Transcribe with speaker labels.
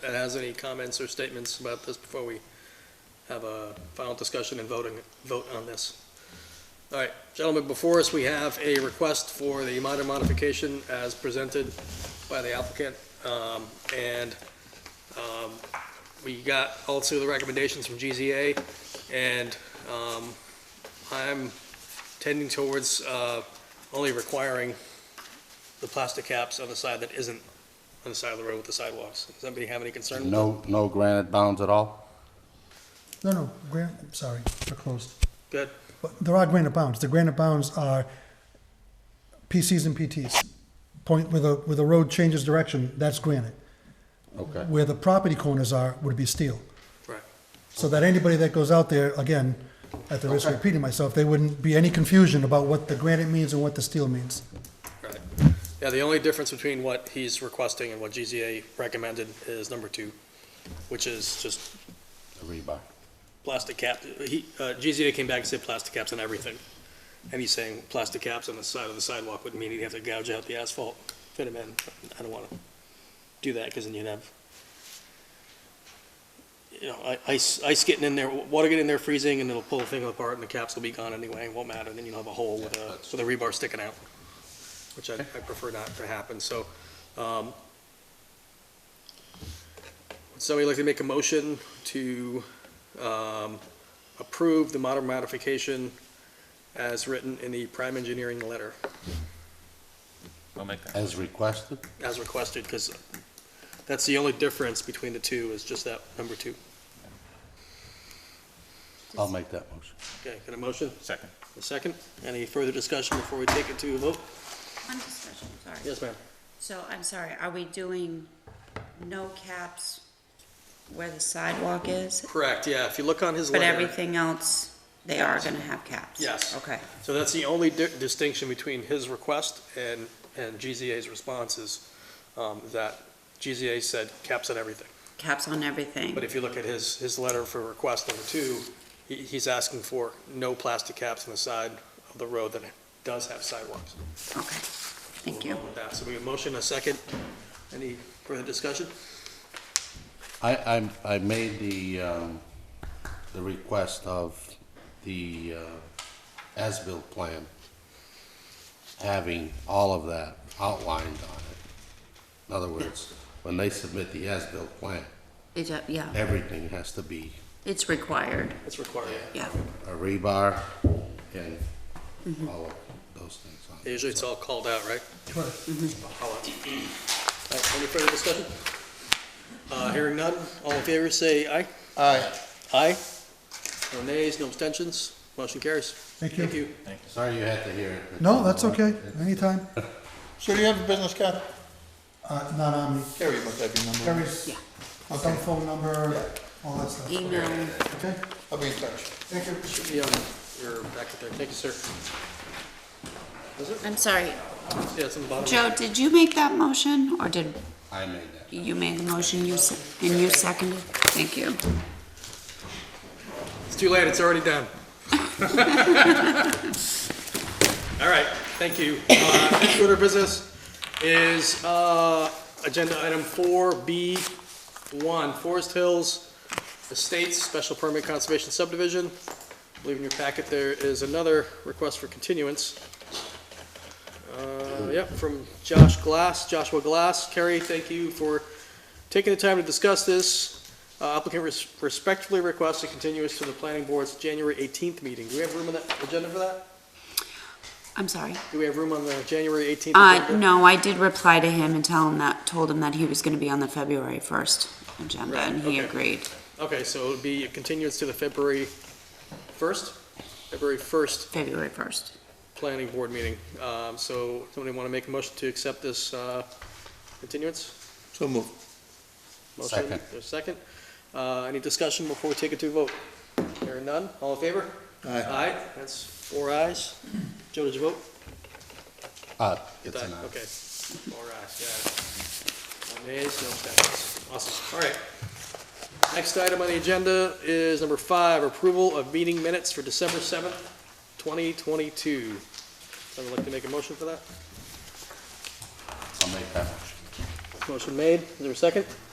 Speaker 1: that has any comments or statements about this before we have a final discussion and voting, vote on this. All right, gentlemen, before us, we have a request for the minor modification as presented by the applicant. Um, and, um, we got also the recommendations from GZA and, um, I'm tending towards, uh, only requiring the plastic caps on the side that isn't on the side of the road with the sidewalks. Does anybody have any concern? with
Speaker 2: No, no granite bounds at all?
Speaker 3: No, no, gran- I'm sorry, they're closed.
Speaker 1: that? Good.
Speaker 3: But there are granite bounds. The granite bounds are PCs and PTs. Point where the, where the road changes direction, that's granite.
Speaker 2: Okay.
Speaker 3: Where the property corners are would be steel.
Speaker 1: Right.
Speaker 3: So that anybody that goes out there, again, at the risk of repeating myself, there wouldn't be any confusion about what the granite means and what the steel means.
Speaker 1: Right. Yeah, the only difference between what he's requesting and what GZA recommended is number two, which is just
Speaker 2: The rebar.
Speaker 1: plastic cap. He, uh, GZA came back and said plastic caps on everything. And he's saying plastic caps on the side of the sidewalk would mean he'd have to gouge out the asphalt, fit them in. I don't wanna do that, cause then you'd have, you know, i- ice, ice getting in there, water getting in there freezing, and it'll pull the thing apart, and the caps will be gone anyway, it won't matter, then you'll have a hole with a, with a rebar sticking out, which I, I prefer not to happen, so, um, would somebody like to make a motion to, um, approve the modern modification as written in the prime engineering letter,
Speaker 4: I'll make that.
Speaker 2: As requested?
Speaker 1: as requested, because that's the only difference between the two, is just that number two.
Speaker 2: I'll make that motion.
Speaker 1: Okay, got a motion,
Speaker 4: Second.
Speaker 1: a second? Any further discussion before we take it to a vote?
Speaker 5: One discussion, sorry.
Speaker 1: Yes, ma'am.
Speaker 5: So I'm sorry, are we doing no caps where the sidewalk is?
Speaker 1: Correct, yeah, if you look on his
Speaker 5: But
Speaker 1: letter.
Speaker 5: everything else, they are gonna have caps?
Speaker 1: Yes.
Speaker 5: Okay,
Speaker 1: So that's the only di- distinction between his request and, and GZA's responses, um, that GZA said caps on everything.
Speaker 5: caps on everything.
Speaker 1: But if you look at his, his letter for request number two, he, he's asking for no plastic caps on the side of the road that does have sidewalks.
Speaker 5: Okay, thank you.
Speaker 1: With that, So we have a motion, a second. Any further discussion?
Speaker 2: I, I, I made the, um, the request of the, uh, as-built plan having all of that outlined on it. In other words, when they submit the as-built plan,
Speaker 5: It, uh, yeah,
Speaker 2: everything has to be
Speaker 5: it's required,
Speaker 1: It's required.
Speaker 5: yeah.
Speaker 2: a rebar and all of those things on it.
Speaker 1: Usually it's all called out, right? All out. All right, Any further discussion? Uh, hearing none, all in favor, say aye.
Speaker 2: Aye.
Speaker 1: Aye. No nays, no abstentions, motion carries.
Speaker 3: Thank
Speaker 1: Thank
Speaker 3: you.
Speaker 1: you.
Speaker 2: Sorry you had to hear it.
Speaker 3: No, that's okay, anytime.
Speaker 6: So do you have a business card?
Speaker 3: Uh, not on me.
Speaker 6: Carrie must have your number.
Speaker 3: Carrie's
Speaker 5: Yeah.
Speaker 3: cell phone number, all that stuff.
Speaker 5: Email,
Speaker 6: Okay, I'll be in touch.
Speaker 3: Thank you.
Speaker 1: Should be on your packet there. Thank you, sir.
Speaker 5: I'm sorry,
Speaker 1: Yeah, it's on the bottom.
Speaker 5: Joe, did you make that motion, or did
Speaker 2: I made that.
Speaker 5: you made the motion, you, se- and you seconded? Thank you.
Speaker 1: It's too late, it's already done. All right, thank you. Uh, Next order of business is uh, Agenda Item 4B1, Forest Hills Estates Special Permit Conservation Subdivision. I believe in your packet there is another request for continuance. Uh, Yep, from Josh Glass, Joshua Glass. Kerry, thank you for taking the time to discuss this. Uh, Applicant res- respectfully requests a continuance to the planning board's January 18th meeting. Do we have room on the agenda for that?
Speaker 5: I'm sorry.
Speaker 1: Do we have room on the January 18th?
Speaker 5: Uh,
Speaker 1: agenda?
Speaker 5: no, I did reply to him and tell him that, told him that he was gonna be on the February first agenda,
Speaker 1: Right,
Speaker 5: and he
Speaker 1: okay.
Speaker 5: agreed.
Speaker 1: Okay, so it would be a continuance to the February 1st, February 1st
Speaker 5: February first.
Speaker 1: planning board meeting. Um, So somebody want to make a motion to accept this uh, continuance?
Speaker 6: So move.
Speaker 1: Motion,
Speaker 2: Second.
Speaker 1: there's a second. Uh, Any discussion before we take it to a vote? Hearing none, all in favor?
Speaker 6: Aye.
Speaker 1: Aye, that's four ayes. Joe, did you vote?
Speaker 2: Uh, it's
Speaker 1: Aye,
Speaker 2: an aye.
Speaker 1: Okay. All right, yeah. No nays, no abstentions. Awesome, all right. Next item on the agenda is number five, approval of meeting minutes for December seventh, twenty twenty-two. Someone like to make a motion for that?
Speaker 2: I'll make that motion.
Speaker 1: Motion made, is there a second?